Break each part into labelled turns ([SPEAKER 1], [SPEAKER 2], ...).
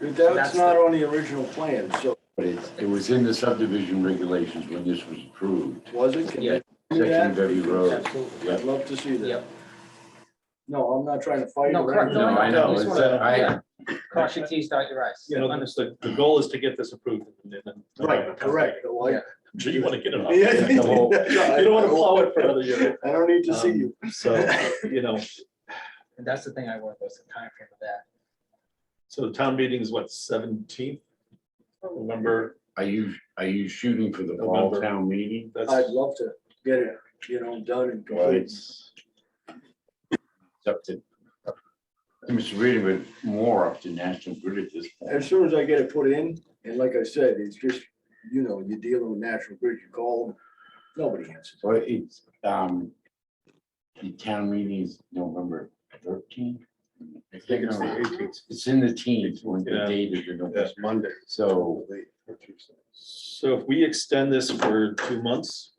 [SPEAKER 1] That's not on the original plan, so
[SPEAKER 2] But it, it was in the subdivision regulations when this was approved,
[SPEAKER 1] was it? Can
[SPEAKER 3] Yeah.
[SPEAKER 1] they do
[SPEAKER 2] section of
[SPEAKER 1] that?
[SPEAKER 2] every road.
[SPEAKER 3] Absolutely.
[SPEAKER 1] I'd love to see that.
[SPEAKER 3] Yep.
[SPEAKER 1] No, I'm not trying to fight.
[SPEAKER 3] No,
[SPEAKER 1] or
[SPEAKER 3] correct.
[SPEAKER 2] No,
[SPEAKER 1] anything.
[SPEAKER 2] I know,
[SPEAKER 3] Just
[SPEAKER 2] it's,
[SPEAKER 3] wanna-
[SPEAKER 2] uh, I,
[SPEAKER 3] yeah. Cross your Ts, dot your Is.
[SPEAKER 4] You know,
[SPEAKER 3] Understood.
[SPEAKER 4] the, the goal is to get this approved. and then-
[SPEAKER 1] Right, correct. Like-
[SPEAKER 4] So you want to get it off.
[SPEAKER 1] Yeah.
[SPEAKER 4] You don't want to plow it for another year. Um,
[SPEAKER 1] I don't need to see you.
[SPEAKER 4] So, you know,
[SPEAKER 3] And that's the thing I want, was the time frame of that.
[SPEAKER 4] so the town meeting is what, seventeenth? November,
[SPEAKER 2] are you, are you shooting for the fall
[SPEAKER 4] November.
[SPEAKER 2] town meeting?
[SPEAKER 4] that's,
[SPEAKER 1] I'd love to get it, you know, done and complete.
[SPEAKER 2] It's it's up to, up to Mr. Reedy, but more up to National Grid at this
[SPEAKER 1] As
[SPEAKER 2] point.
[SPEAKER 1] soon as I get it put in, and like I said, it's just, you know, you're dealing with National Grid, you call them, nobody answers.
[SPEAKER 2] So it's, um, the town meeting is November thirteenth. I think it's the eighteenth. It's in the teens, when the
[SPEAKER 4] Yeah.
[SPEAKER 2] date is November.
[SPEAKER 4] Yeah,
[SPEAKER 2] Monday. So
[SPEAKER 4] so if we extend this for two months,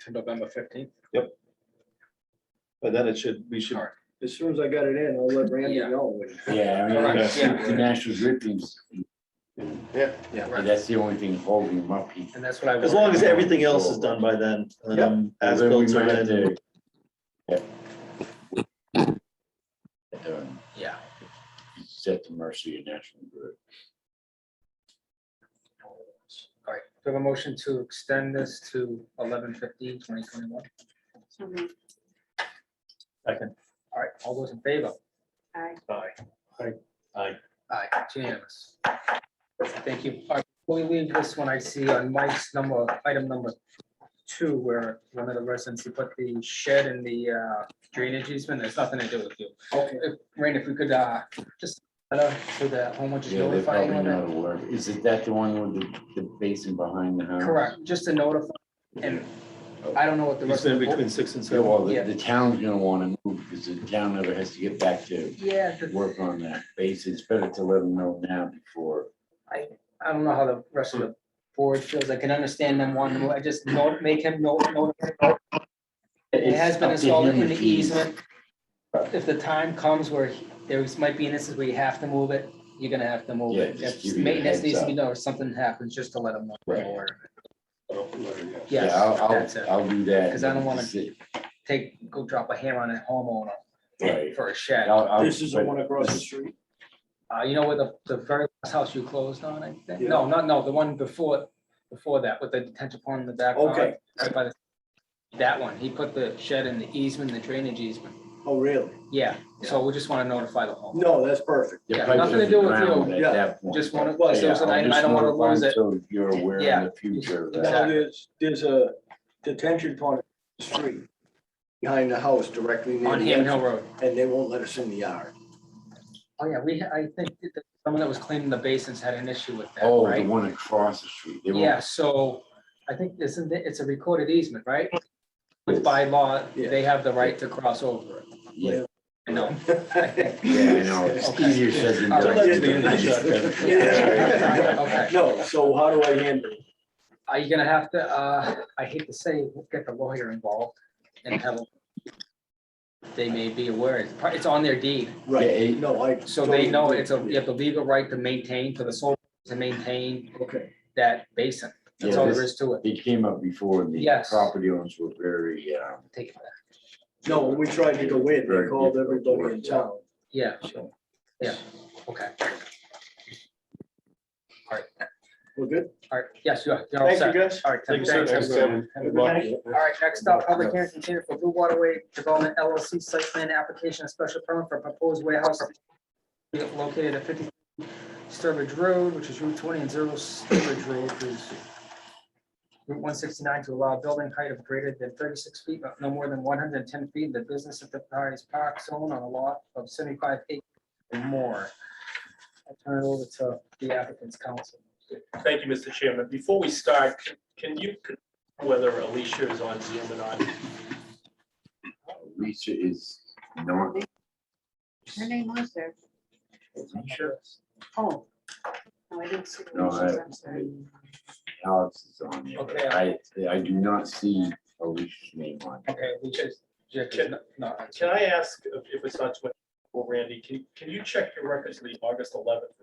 [SPEAKER 3] To November fifteenth.
[SPEAKER 4] but then it should, we should,
[SPEAKER 3] Alright.
[SPEAKER 1] As soon as I got it in, I'll let Randy
[SPEAKER 3] Yeah.
[SPEAKER 1] know.
[SPEAKER 2] Yeah, I mean,
[SPEAKER 3] Correct,
[SPEAKER 2] I think
[SPEAKER 3] yeah.
[SPEAKER 2] the national grid teams,
[SPEAKER 3] Yeah,
[SPEAKER 2] and that's the only thing holding them up. He-
[SPEAKER 3] and that's what I.
[SPEAKER 4] as
[SPEAKER 3] wanted.
[SPEAKER 4] long as everything else is done by then. um, As
[SPEAKER 2] Although we
[SPEAKER 4] built
[SPEAKER 2] might have
[SPEAKER 4] in,
[SPEAKER 2] to- yeah. Um,
[SPEAKER 3] Yeah.
[SPEAKER 2] It's at the mercy of national grid.
[SPEAKER 3] All right, do I have a motion to extend this to 11:15, 2021.
[SPEAKER 4] second,
[SPEAKER 3] All right, all those in favor?
[SPEAKER 5] Aye.
[SPEAKER 4] aye.
[SPEAKER 3] Aye, it's unanimous. Thank you. All right, Before we leave this one, I see on Mike's number, item number two, where one of the residents, he put the shed in the uh, drainage easement, there's nothing to do with you.
[SPEAKER 1] Okay.
[SPEAKER 3] If- Rain, if we could uh, just, uh, so the homeowner just
[SPEAKER 2] Yeah, they're
[SPEAKER 3] notify you
[SPEAKER 2] probably
[SPEAKER 3] of
[SPEAKER 2] not
[SPEAKER 3] it.
[SPEAKER 2] aware. Is it that the one with the, the basin behind the house?
[SPEAKER 3] Correct, just to notify, and I don't know what the
[SPEAKER 4] You
[SPEAKER 3] rest of
[SPEAKER 4] said
[SPEAKER 3] the. board-
[SPEAKER 4] between six and
[SPEAKER 2] So
[SPEAKER 4] seven.
[SPEAKER 2] well, the,
[SPEAKER 3] Yeah.
[SPEAKER 2] the town's gonna wanna move because the town never has to get back to
[SPEAKER 3] Yeah, the-
[SPEAKER 2] work on that basin. It's better to let them know now before.
[SPEAKER 3] I don't know how the rest of the board feels. I can understand them wanting, to- I just note, make him note, note. It has been
[SPEAKER 2] It's up
[SPEAKER 3] installed
[SPEAKER 2] to
[SPEAKER 3] in
[SPEAKER 2] him
[SPEAKER 3] the
[SPEAKER 2] if he-
[SPEAKER 3] easement. If the time comes where he- there is- might be instances where you have to move it, you're gonna have to move
[SPEAKER 2] Yeah,
[SPEAKER 3] it.
[SPEAKER 2] just
[SPEAKER 3] If
[SPEAKER 2] give you a
[SPEAKER 3] maintenance
[SPEAKER 2] heads
[SPEAKER 3] needs to
[SPEAKER 2] up.
[SPEAKER 3] be done or something happens, just to let them know.
[SPEAKER 2] Right.
[SPEAKER 3] or-
[SPEAKER 2] Yeah,
[SPEAKER 3] Yes,
[SPEAKER 2] I'll- I'll-
[SPEAKER 3] that's it.
[SPEAKER 2] I'll do that.
[SPEAKER 3] 'Cause I don't wanna-
[SPEAKER 2] That's it.
[SPEAKER 3] Take, go drop a hammer on a homeowner
[SPEAKER 2] Right.
[SPEAKER 3] for a shed.
[SPEAKER 2] I'll- I'll-
[SPEAKER 1] This is the
[SPEAKER 2] but-
[SPEAKER 1] one across the street.
[SPEAKER 3] Uh, you know where the, the very last house you closed on, I think? No, not, no, the one before, before that with the detention pond in the back.
[SPEAKER 1] Okay.
[SPEAKER 3] Right by the, that one. He put the shed in the easement, the drainage easement.
[SPEAKER 1] Oh, really?
[SPEAKER 3] Yeah, so we just want to notify the home.
[SPEAKER 1] No, that's perfect.
[SPEAKER 2] the
[SPEAKER 3] Yeah,
[SPEAKER 2] pipe
[SPEAKER 3] nothing to
[SPEAKER 2] doesn't
[SPEAKER 3] do with
[SPEAKER 2] ground
[SPEAKER 3] you.
[SPEAKER 2] at
[SPEAKER 1] Yeah,
[SPEAKER 2] that point.
[SPEAKER 3] Just want
[SPEAKER 1] Well,
[SPEAKER 3] to, so it's an
[SPEAKER 2] Yeah,
[SPEAKER 3] item, I
[SPEAKER 2] I'll
[SPEAKER 3] don't want to
[SPEAKER 2] just notify
[SPEAKER 3] lose it.
[SPEAKER 2] So you're aware
[SPEAKER 3] Yeah.
[SPEAKER 2] in the future of that.
[SPEAKER 1] Now, there's, there's a detention pond in the street behind the house directly near
[SPEAKER 3] On
[SPEAKER 1] the
[SPEAKER 3] Ham
[SPEAKER 1] entrance,
[SPEAKER 3] Hill Road.
[SPEAKER 1] and they won't let us in the yard.
[SPEAKER 3] Oh, yeah, we, I think that someone that was cleaning the basins had an issue with that,
[SPEAKER 2] Oh, the
[SPEAKER 3] right?
[SPEAKER 2] one across the street. They won't-
[SPEAKER 3] Yeah, so I think isn't it, it's a recorded easement, right? With by law, they have the right to cross over it.
[SPEAKER 2] Yeah,
[SPEAKER 3] I know.
[SPEAKER 2] yeah, I know. It's
[SPEAKER 3] Okay.
[SPEAKER 2] easier said than
[SPEAKER 3] All
[SPEAKER 2] done.
[SPEAKER 3] right.
[SPEAKER 1] Yeah. No, so how do I handle? it?
[SPEAKER 3] Are you gonna have to, uh, I hate to say, get the lawyer involved and have. They may be aware, it's pro- it's on their deed,
[SPEAKER 1] Right,
[SPEAKER 2] it-
[SPEAKER 1] no, I.
[SPEAKER 3] so they
[SPEAKER 1] totally
[SPEAKER 3] know
[SPEAKER 1] agree.
[SPEAKER 3] it's a, you have the legal right to maintain, for the sole, to maintain
[SPEAKER 1] Okay,
[SPEAKER 3] that basin. That's
[SPEAKER 2] Yeah,
[SPEAKER 3] all there
[SPEAKER 2] this-
[SPEAKER 3] is to it.
[SPEAKER 2] It came up before and the
[SPEAKER 3] Yes.
[SPEAKER 2] property owners were very, um,
[SPEAKER 3] Take it back.
[SPEAKER 1] no, when we tried to go in, they
[SPEAKER 2] Very
[SPEAKER 1] called
[SPEAKER 2] difficult
[SPEAKER 1] everybody in
[SPEAKER 2] work.
[SPEAKER 1] town.
[SPEAKER 3] Yeah,
[SPEAKER 1] So,
[SPEAKER 3] okay,
[SPEAKER 1] We're good?
[SPEAKER 3] all right, yes, you're, you're all
[SPEAKER 1] Thank you,
[SPEAKER 3] set.
[SPEAKER 1] guys.
[SPEAKER 3] All right,
[SPEAKER 4] Thank you,
[SPEAKER 3] thanks.
[SPEAKER 4] sir.
[SPEAKER 3] thanks, everyone. Have a good night. All right, next up, public hearing continued for Blue Waterway Development LLC site plan application, and special permit for proposed warehouse located at fifty Sturbridge Road, which is Route twenty and zero Sturbridge Road, which is Route one sixty-nine to allow building height of greater than thirty-six feet, but no more than one hundred and ten feet in the business of the highest park zone on a lot of seventy-five acres or more. I'll turn it over to the applicant's counsel.
[SPEAKER 6] Thank you, Mr. Chairman. Before we start, can you confirm whether Alicia is on Zoom or not?
[SPEAKER 2] Lisa is not,
[SPEAKER 5] Her name was there.
[SPEAKER 3] Sure.
[SPEAKER 5] Oh. No, I didn't see. the
[SPEAKER 2] No,
[SPEAKER 5] initials,
[SPEAKER 2] I-
[SPEAKER 5] I'm sorry.
[SPEAKER 2] Alex is on there,
[SPEAKER 3] Okay.
[SPEAKER 2] but I, I do not see Alicia's name on. it.
[SPEAKER 3] Okay, we just, Jeff is not- not.
[SPEAKER 6] Can I ask if it's not too much, well, Randy, can, can you check your records for the August eleventh